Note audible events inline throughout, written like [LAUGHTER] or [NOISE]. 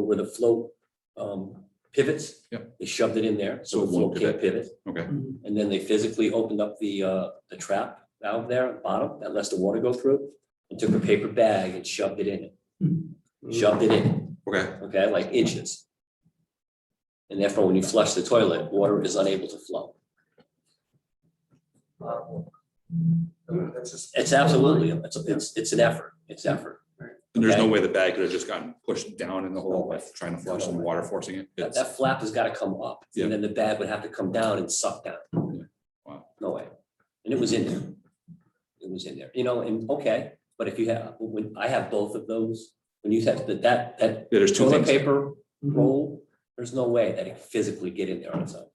where the float um pivots. Yep. They shoved it in there, so So the it won't float can't pivot. Okay, And then they physically opened up the uh, the trap valve there at the bottom that lets the water go through. And took a paper bag and shoved it in it, shoved it in, okay, okay, like inches. And therefore, when you flush the toilet, water is unable to flow. It's absolutely, it's it's it's an effort, it's effort. and there's no Okay. way the bag could have just gotten pushed down in the hole by trying to flush and the water forcing it. That It's- that flap has got to come up Yeah. and then the bag would have to come down and suck down. Wow. No way. And it was in there. It was in there, you know, and okay, but if you have, when I have both of those, when you have that, that, that Yeah, there's two toilet things. paper roll, there's no way that it could physically get in there on its own.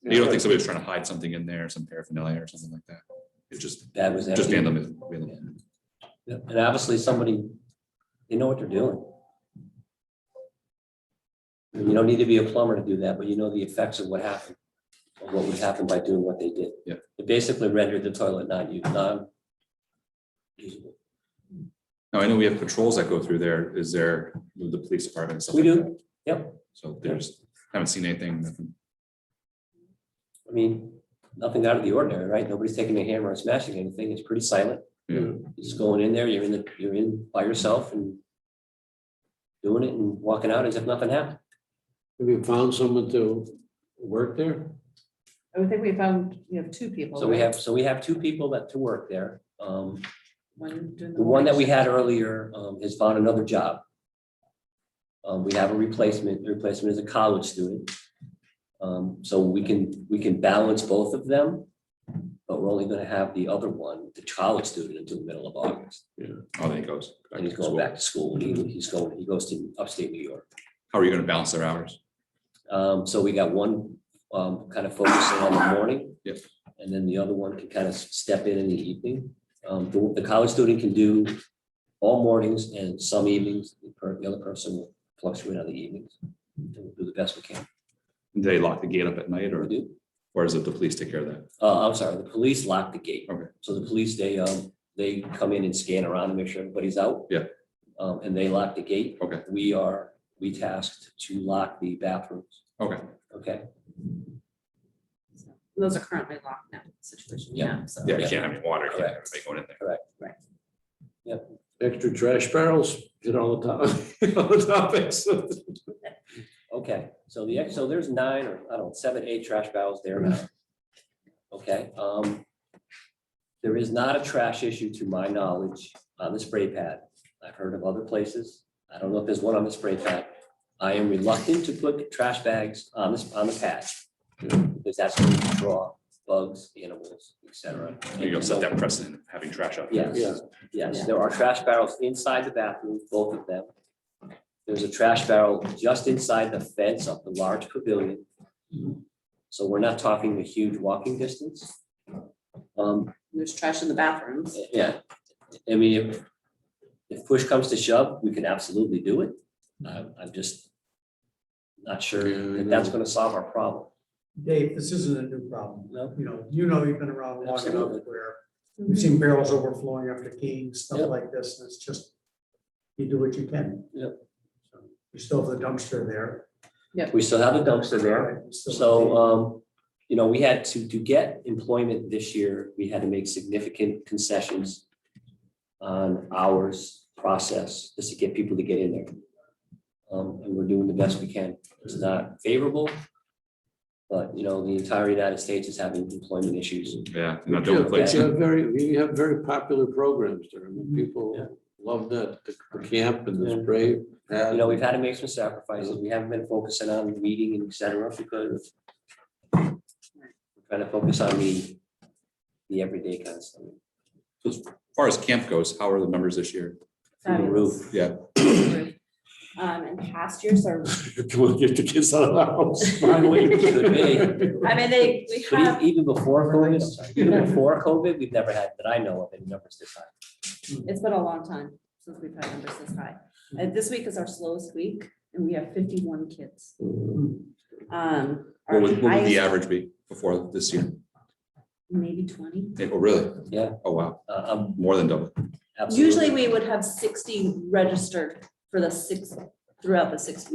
You don't think somebody was trying to hide something in there, some paraphernalia or something like that? It's just, That was. just empty. vandalism. vandalism. Yeah, And obviously somebody, they know what they're doing. And You don't need to be a plumber to do that, but you know the effects of what happened, of what would happen by doing what they did. Yeah. It basically rendered the toilet not used, non. usable. Now, I know we have patrols that go through there. Is there with the police department? and stuff We like do, that? yep. So there's, haven't seen anything, nothing. I mean, nothing out of the ordinary, right? Nobody's taking a hammer and smashing anything. It's pretty silent. Yeah. You're Just going in there, you're in the, you're in by yourself and doing it and walking out as if nothing happened. Have you found someone to work there? I would think we found, you know, two people. So we right? have, so we have two people that to work there. Um, One doing the. The one that we had mornings. earlier um, has found another job. Um, We have a replacement, the replacement is a college student. Um, So we can, we can balance both of them, but we're only gonna have the other one, the college student, until the middle of August. Oh, there he goes. Back And he's to going school. back to school, and he- he's going, he goes to upstate New York. How are you gonna balance their hours? Um, So we got one um, kind of focusing on the morning. Yep. And then the other one can kind of step in in the evening. Um, The the college student can do all mornings and some evenings. The per- the other person will fluctuate on the evenings. And We'll Do the best we can. Do they lock the gate up at night We or, do. or is it the police take care of that? Uh, I'm sorry, the police lock the gate. Okay. So the police, they, um, they come in and scan around and make sure everybody's out. Yeah. Um, And they lock the gate. Okay. We are, we tasked to lock the bathrooms. Okay, Okay? Those are currently locked now, situation, Yeah. yeah, so. yeah, you can't have any water, can't have Correct. anybody going in there. Extra trash barrels hit all the top, [LAUGHS] all the topics. Okay, so the, ex so there's nine or, I don't, know, seven, eight trash barrels there now. Okay, um. There is not a trash issue to my knowledge on the spray pad. I've heard of other places. I don't know if there's one on the spray pad. I am reluctant to put trash bags on this, on the pad. Because that's going to draw bugs, animals, et cetera. You don't set that precedent, of having trash out. there. Yes, yes, Yeah. there are trash barrels inside the bathroom, both of them. There's a trash barrel just inside the fence of the large pavilion. So we're not talking a huge walking distance. Um, There's trash in the bathrooms. yeah, I mean, if, if push comes to shove, we can absolutely do it. I'm, I'm just not sure Yeah, I that that's know. gonna solve our problem, Dave, this isn't a new problem. no? You know, you know, you've been around long enough Absolutely. where Mm-hmm. we've seen barrels overflowing after kings, stuff Yep. like this. and It's just, you do what you can. Yep. So, You still have the dumpster there. We still have a dumpster there. Right, you still have So, um, you know, we had to, to get employment this year, we had to make significant concessions on hours process, just to get people to get in there. Um, and we're doing the best we can. It's not favorable. But, you know, the entire United States is having employment issues. Yeah, not the only place. We have very, we have very popular programs there. I Mm-hmm. mean, people love that, the the camp and the spray. You know, we've [LAUGHS] had to make some sacrifices. We haven't been focusing on meeting and et cetera because we're trying to focus on the, the everyday kind of stuff. As far as camp goes, how are the numbers this year? Through the roof. Yeah. Fabulous. Um, and past years are, We'll get the kids out of the house finally. Could be. I mean, they, we But have, even, even before COVID, even before COVID, we've never had, that I know of, any numbers this high. it's been a long time since we've had numbers this high. Mm-hmm. And this week is our slowest week, and we have fifty-one kids. Mm-hmm. Um. our What would, what would the highest- average be before this year? Maybe twenty. Eh, Oh, really? Yeah. Oh, wow, Uh, um, more than double. absolutely. Usually we would have sixty registered for the six throughout the six